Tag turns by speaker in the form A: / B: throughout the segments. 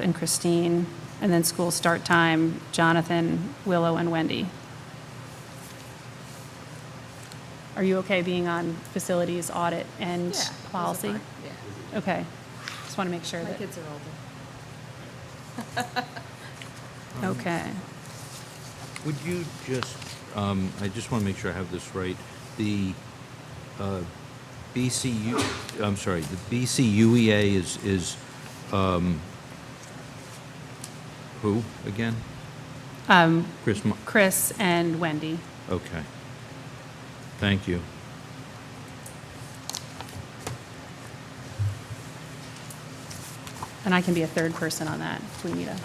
A: and Christine, and then school start time, Jonathan, Willow, and Wendy. Are you okay being on facilities audit and
B: Yeah, those are
A: policy?
B: fine,
A: Okay, just want to make sure
B: Yeah, my
A: that,
B: kids are older.
A: okay.
C: Would you just, um, I just want to make sure I have this right, the uh, BCU, I'm sorry, the BCUEA E is, is, um, who again?
A: Um,
C: Chris, Mo-
A: Chris and Wendy.
C: okay. Thank you.
A: And I can be a third person on that if we need a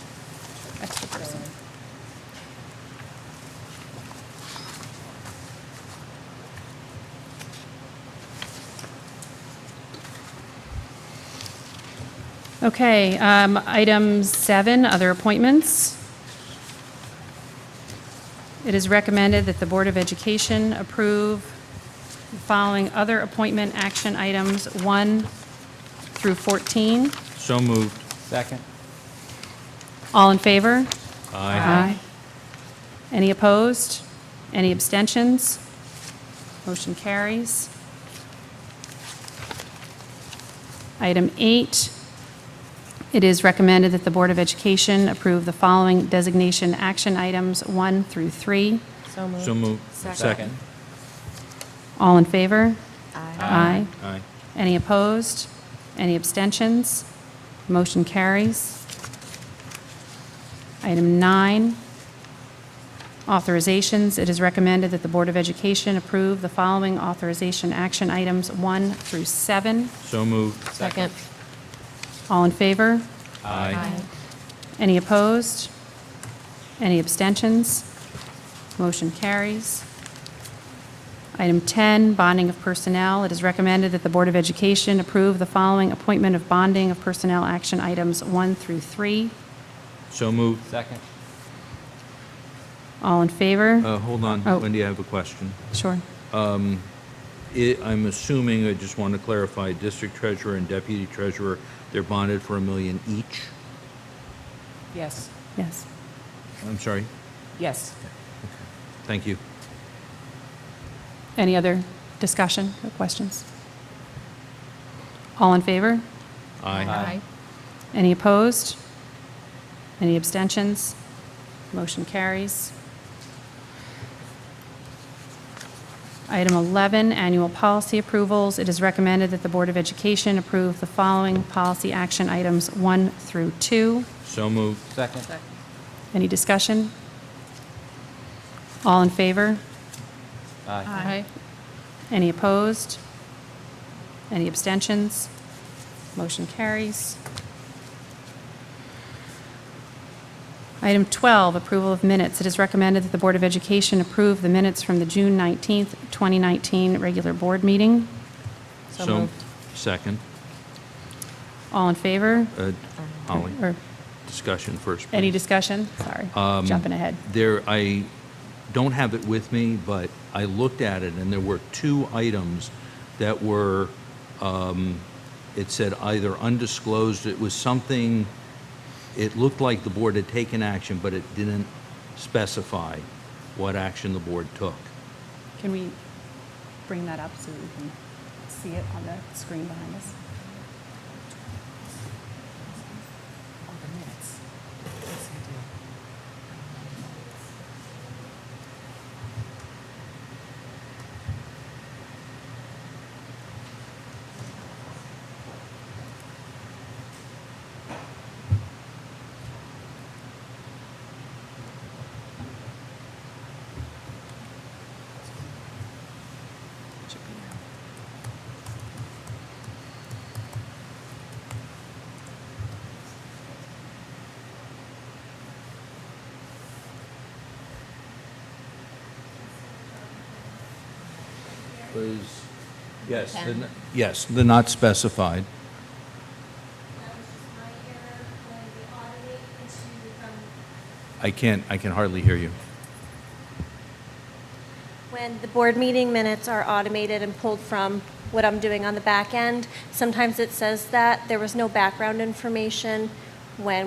A: extra person. Okay, um, item seven, other appointments. It is recommended that the Board of Education approve the following other appointment action items, one through 14.
C: So moved.
D: Second.
A: All in favor?
C: Aye.
A: Any opposed? Any abstentions? Motion carries. Item eight, it is recommended that the Board of Education approve the following designation action items, one through three.
B: So
C: So moved.
B: Second.
A: All in favor?
B: Aye.
A: Aye.
C: Aye.
A: Any opposed? Any abstentions? Motion carries. Item nine, authorizations. It is recommended that the Board of Education approve the following authorization action items one through seven.
C: So moved.
B: Second.
A: All in favor?
C: Aye.
A: Any opposed? Any abstentions? Motion carries. Item 10, bonding of personnel. It is recommended that the Board of Education approve the following appointment of bonding of personnel action items 1 through 3.
C: So moved.
D: Second.
A: All in favor?
C: Uh, Hold on,
A: Oh.
C: Wendy, I have a question.
A: Sure.
C: It- I'm assuming, I just want to clarify, district treasurer and deputy treasurer, they're bonded for a million each?
B: Yes,
A: Yes.
C: I'm sorry?
B: yes.
C: Thank you.
A: Any other discussion or questions? All in favor?
C: Aye.
D: Aye.
A: Any opposed? Any abstentions? Motion carries. Item 11, annual policy approvals. It is recommended that the Board of Education approve the following policy action items 1 through 2.
C: So moved.
D: Second.
B: Second.
A: Any discussion? All in favor?
D: Aye.
A: Any opposed? Any abstentions? Motion carries. Item 12, approval of minutes. It is recommended that the Board of Education approve the minutes from the June 19th, 2019 regular board meeting.
B: So
C: So-
B: moved.
C: Second.
A: All in favor?
C: Uh, Holly,
A: Or
C: discussion first.
A: any
C: please.
A: discussion? Sorry, jumping ahead.
C: There, I don't have it with me, but I looked at it, and there were two items that were, um, it said either undisclosed, it was something, it looked like the board had taken action, but it didn't specify what action the board took.
A: Can we bring that up so we can see it on the screen behind us?
B: All the minutes. Yes, I do. Should be there.
C: Was, yes, the n- yes, the not specified.
E: That was just my error when we audited into from
C: I can't, I can hardly hear you.
E: when the board meeting minutes are automated and pulled from what I'm doing on the back end. Sometimes it says that there was no background information when